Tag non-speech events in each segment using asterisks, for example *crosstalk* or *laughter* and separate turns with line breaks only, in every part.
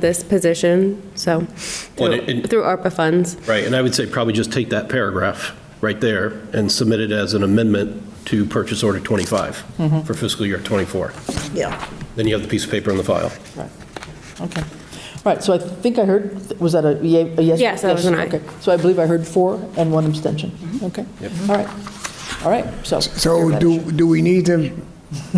this position, so, through
Well, and-
through ARPA funds.
Right, and I would say probably just take that paragraph right there and submit it as an amendment to purchase order
Mm-hmm.
25 for fiscal year '24.
Yeah.
Then you have the piece of paper in the file.
Right, okay. All right, so I think I heard, was that a yea- a yes?
Yes, that was an aye. Mm-hmm.
Okay, so I believe I heard four and one abstention. Okay, all right, all right, so.
So do, do we need to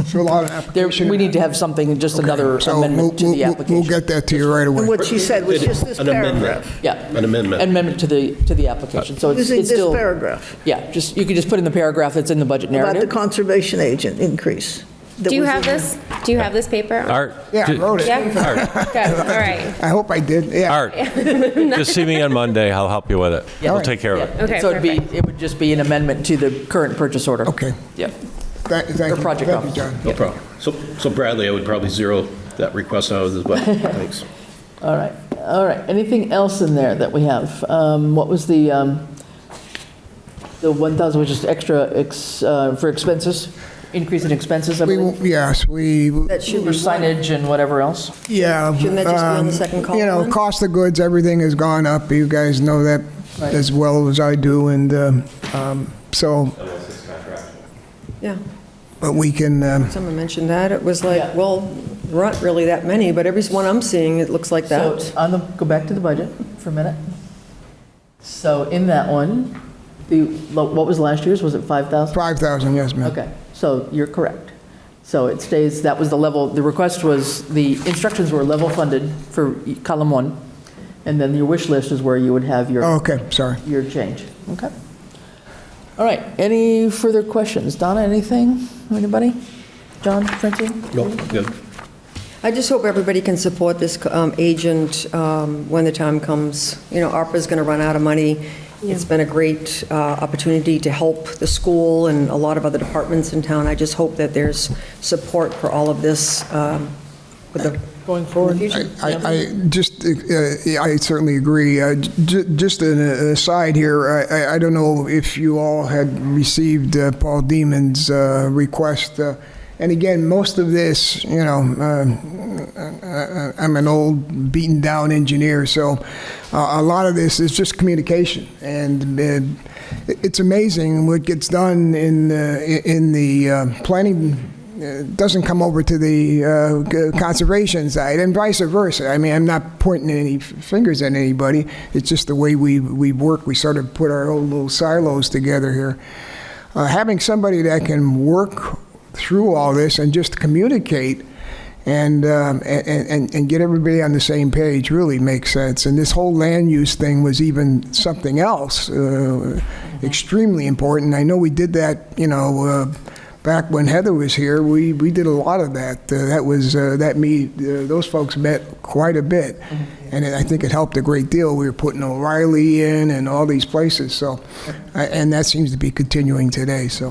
fill out
*laughs*
an
There,
application?
we need to have something, just another
So we'll-
amendment to
we'll-
the
we'll-
application.
We'll get that to you right away.
What she said was just this
An amendment.
paragraph.
Yeah.
An amendment.
Amendment to the, to the application, so it's
Using
it's
this
still.
paragraph
Yeah, just, you could just put in the paragraph that's in the budget
about the
narrative.
conservation agent increase. that
Do you
was
have
in-
this, do you have this paper?
Art.
Yeah, I
ju-
wrote it.
Yeah,
Art,
good, all right.
I hope I did, yeah.
Art, just see me on Monday, I'll help you with it. We'll take care of it.
Yeah.
Okay,
So it'd be,
perfect.
it would just be an amendment to the current purchase order.
Okay.
Yep.
Thank thank
Or
you.
project
Thank you,
office.
John.
No problem. So so Bradley, I would probably zero that request out of the budget. Thanks.
All right, all right. Anything else in there that we have? Um, What was the, um, the 1,000, which is extra ex- uh, for expenses, increase in expenses, I
We,
believe?
will- yes, we,
That should
For
be one.
signage and whatever else?
yeah.
Shouldn't that just be on
um,
the second column
You know,
then?
cost of goods, everything has gone up. You guys know that
Right.
as well as I do, and um, um, so,
Yeah,
but we can, um,
someone mentioned that. It was like,
Yeah.
well, there aren't really that many, but every one I'm seeing, it looks like
So,
that.
on the, go back to the budget for a minute. So in that one, the, what was last year's, was it 5,000?
5,000, yes, ma'am.
Okay, so you're correct. So it stays, that was the level, the request was, the instructions were level funded for e, column one, and then your wish list is where you would have your,
Okay, sorry.
your change. Okay. All right, any further questions? Donna, anything? Anybody? John, Francine?
No, good.
I just hope everybody can support this um, agent um, when the time comes. You know, ARPA's going to run out of money. It's been a great uh, opportunity to help the school and a lot of other departments in town. I just hope that there's support for all of this um, with the. Going forward.
I, I just, uh, yeah, I certainly agree. Uh, j- Just an aside here, I- I, I don't know if you all had received uh, Paul Demon's uh, request. uh, And again, most of this, you know, uh, I- I- I'm an old, beaten-down engineer, so uh, a lot of this is just communication. And uh, it- it's amazing what gets done in, uh, in the uh, planning it doesn't come over to the uh, c- conservation side, and vice versa. I mean, I'm not pointing any f- fingers at anybody. It's just the way we, we work. We sort of put our own little silos together here. Uh, having somebody that can work through all this and just communicate and, um, and, and, and get everybody on the same page really makes sense. And this whole land use thing was even something else, uh, extremely important. I know we did that, you know, uh, back when Heather was here, we, we did a lot of that. Uh, that was uh, that me uh, those folks met quite a bit, and it, I think it helped a great deal. We were putting O'Reilly in and all these places. So, I, and that seems to be continuing today. So,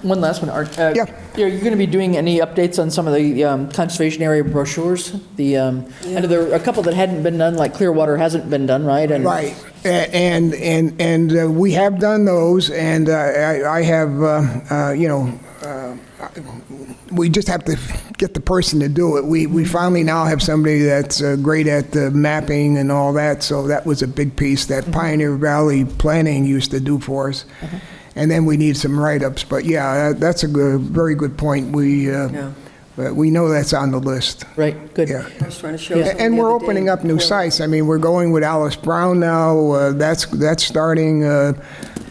One last one, Art. Uh,
Yeah.
Are you going to be doing any updates on some of the um, conservation area brochures? The, um, I know there were a couple that hadn't been done, like Clearwater hasn't been done, right? And-
right, A- and and and uh, we have done those, and uh, I, I have uh, uh, you know. Uh, we just have to get the person to do it. We, we finally now have somebody that's uh, great at the mapping and all that, so that was a big piece that Pioneer Valley Planning used to do for us. And then we need some write-ups, but yeah, that- that's a good, very good point. We, uh, but we know that's on the list.
Right, good.
Yeah.
I was trying to show.
A- And we're opening up new
sites.
sites. I mean, we're going with Alice Brown now. Uh, That's, that's starting. uh,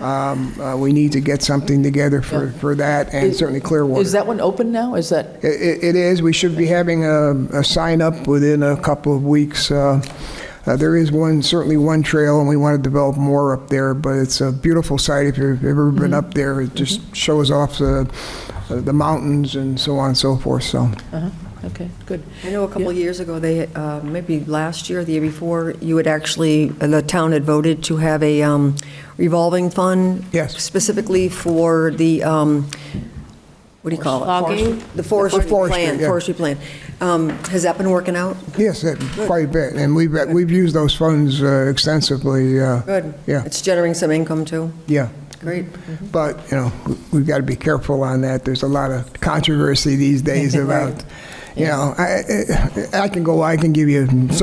um, uh, We need to get something together for, for that and
Is-
certainly Clearwater.
Is that one open now? Is that?
I- i- It is. We should be having a, a sign up within a couple of weeks. Uh, uh, there is one, certainly one trail, and we want to develop more up there. But it's a beautiful site. If you've ever been
Mm-hmm.
up there, it just shows off the, the mountains and so on and so forth. So
Uh-huh, okay, good.
I know a couple of years ago, they, uh, maybe last year, the year before, you had actually, uh, the town had voted to have a um, revolving fund.
Yes.
Specifically for the, um, what do you call it?
Logging?
The forestry
Forestry,
plan,
yeah.
forestry plan. Um, Has that been working out?
yes, that- quite a bit, and we've uh, we've used those funds uh, extensively. Uh,
Good.
Yeah.
It's generating some income, too?
Yeah.
Great.
But, you know, we- we've got to be careful on that. There's a lot of controversy these days about, You know, I, I I can go, I can give you some